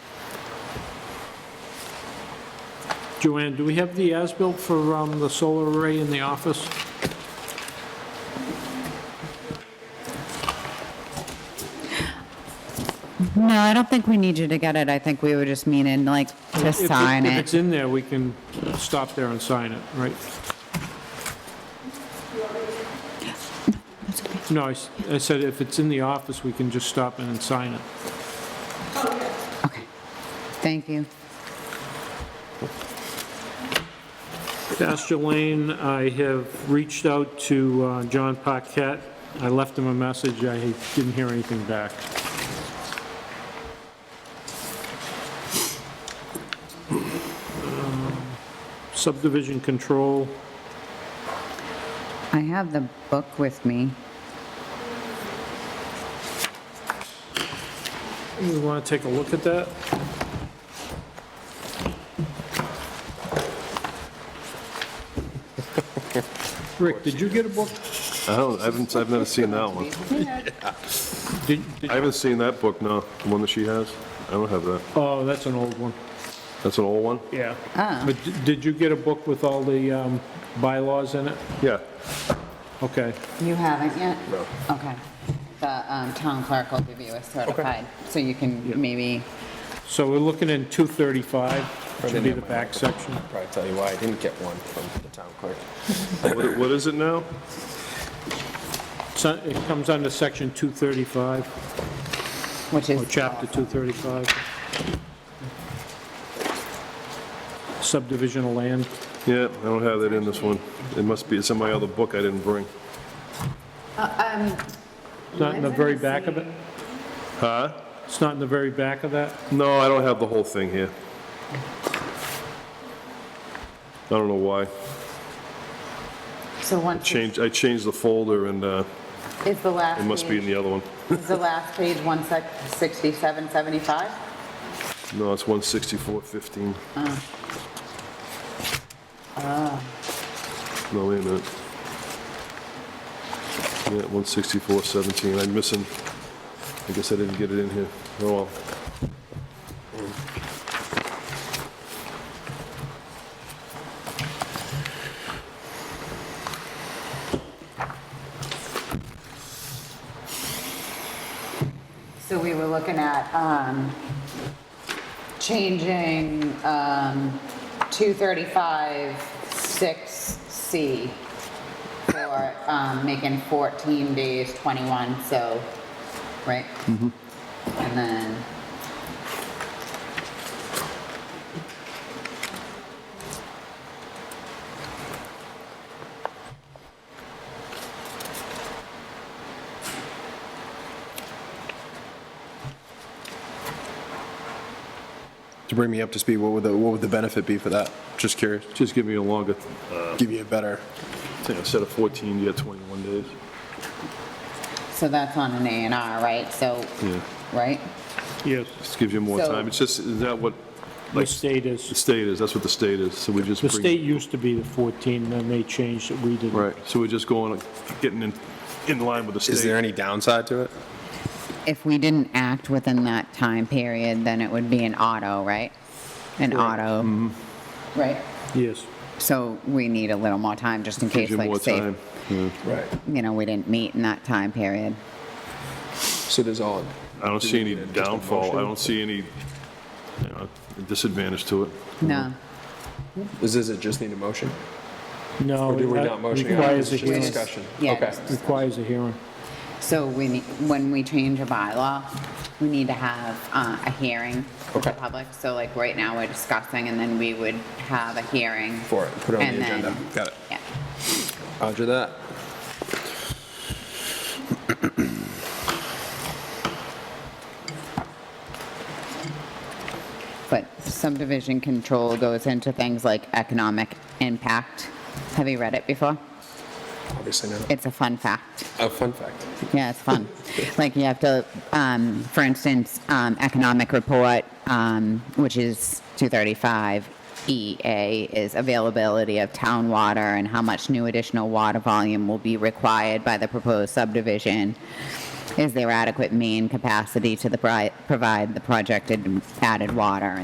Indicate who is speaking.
Speaker 1: Joanne, do we have the as-built for um, the solar array in the office?
Speaker 2: No, I don't think we need you to get it. I think we were just meaning like to
Speaker 1: If it-
Speaker 2: sign
Speaker 1: If
Speaker 2: it.
Speaker 1: it's in there, we can stop there and sign it, right? No, I s- I said if it's in the office, we can just stop in and sign it.
Speaker 2: Okay. Thank you.
Speaker 1: Astor Lane, I have reached out to uh, John Paquette. I left him a message, I didn't hear anything back. Um, Subdivision control,
Speaker 2: I have the book with me.
Speaker 1: you want to take a look at that? Rick, did you get a book?
Speaker 3: I don't, I haven't, I've never seen that one.
Speaker 1: Did- did-
Speaker 3: I haven't seen that book, no, the one that she has. I don't have that.
Speaker 1: Oh, that's an old one.
Speaker 3: That's an old one?
Speaker 1: Yeah. But d- did you get a book with all the um, bylaws in it?
Speaker 3: Yeah.
Speaker 1: Okay.
Speaker 2: You haven't yet?
Speaker 3: No.
Speaker 2: Okay. The um, town clerk will give you a certified, so you
Speaker 1: Yeah.
Speaker 2: can maybe,
Speaker 1: So we're looking in 235, should be the back section.
Speaker 4: Probably tell you why I didn't get one from the town clerk.
Speaker 3: What what is it now?
Speaker 1: So It comes under section 235,
Speaker 2: which
Speaker 1: or
Speaker 2: is.
Speaker 1: chapter 235. Subdivision of land.
Speaker 3: Yeah, I don't have that in this one. It must be, it's in my other book I didn't bring.
Speaker 2: uh, um,
Speaker 1: It's Not in the very back of it?
Speaker 3: Huh?
Speaker 1: It's not in the very back of that?
Speaker 3: No, I don't have the whole thing here. I don't know why.
Speaker 2: So once, it's-
Speaker 3: Changed, I changed the folder and uh,
Speaker 2: is the last
Speaker 3: it must be in
Speaker 2: page,
Speaker 3: the other one.
Speaker 2: is the last page 167, 75?
Speaker 3: No, it's 16415.
Speaker 2: Ah.
Speaker 3: No, wait a minute. Yeah, 16417, I'm missing, I guess I didn't get it in here. Oh, well.
Speaker 2: So we were looking at um, changing um, 235, 6C for um, making 14 days 21, so, right?
Speaker 3: Mm-hmm.
Speaker 2: And then,
Speaker 4: To bring me up to speed, what would the, what would the benefit be for that? Just curious.
Speaker 3: Just give me a longer,
Speaker 4: Give you a better,
Speaker 3: I think I said a 14, you got 21 days.
Speaker 2: so that's on an A and R, right? So,
Speaker 3: Yeah.
Speaker 2: right?
Speaker 1: Yes.
Speaker 3: Just gives you more
Speaker 2: So-
Speaker 3: time. It's just, is that what
Speaker 1: The state
Speaker 3: the
Speaker 1: is,
Speaker 3: state is? That's what the state is, so we just
Speaker 1: the
Speaker 3: bring...
Speaker 1: state used to be the 14, then they changed it, we didn't.
Speaker 3: Right, so we're just going, getting in, in line with the state.
Speaker 4: is there any downside to it?
Speaker 2: If we didn't act within that time period, then it would be an auto, right? An auto.
Speaker 3: Mm-hmm.
Speaker 2: Right?
Speaker 1: Yes.
Speaker 2: So we need a little more time, just in case,
Speaker 3: Gives you
Speaker 2: like,
Speaker 3: more
Speaker 2: say,
Speaker 3: time. Yeah.
Speaker 4: Right.
Speaker 2: you know, we didn't meet in that time period.
Speaker 4: So does all,
Speaker 3: I don't see any downfall, I don't see any, you know, disadvantage to it.
Speaker 4: Mm-hmm.
Speaker 2: No.
Speaker 4: does does it just need a motion?
Speaker 1: No.
Speaker 4: Or do we
Speaker 1: that
Speaker 4: not motion? it?
Speaker 1: Requires a
Speaker 4: It's just
Speaker 1: hearing.
Speaker 4: Discussion.
Speaker 2: Yeah,
Speaker 4: Okay.
Speaker 2: just-
Speaker 1: Requires a hearing.
Speaker 2: So we, ne- when we change a bylaw, we need to have uh, a hearing with the
Speaker 4: Okay.
Speaker 2: public. So like right now, we're discussing and then we would have a hearing.
Speaker 4: For it, put it on
Speaker 2: And
Speaker 4: the
Speaker 2: then-
Speaker 4: agenda. Got it.
Speaker 2: Yeah.
Speaker 4: Roger that.
Speaker 2: But subdivision control goes into things like economic impact. Have you read it before?
Speaker 4: Obviously not.
Speaker 2: It's a fun fact.
Speaker 4: A fun fact.
Speaker 2: Yeah, it's fun. like you have to, um, for instance, um, economic report, um, which is 235 EA, is availability of town water and how much new additional water volume will be required by the proposed subdivision. Is there adequate main capacity to the pri- provide the projected added water?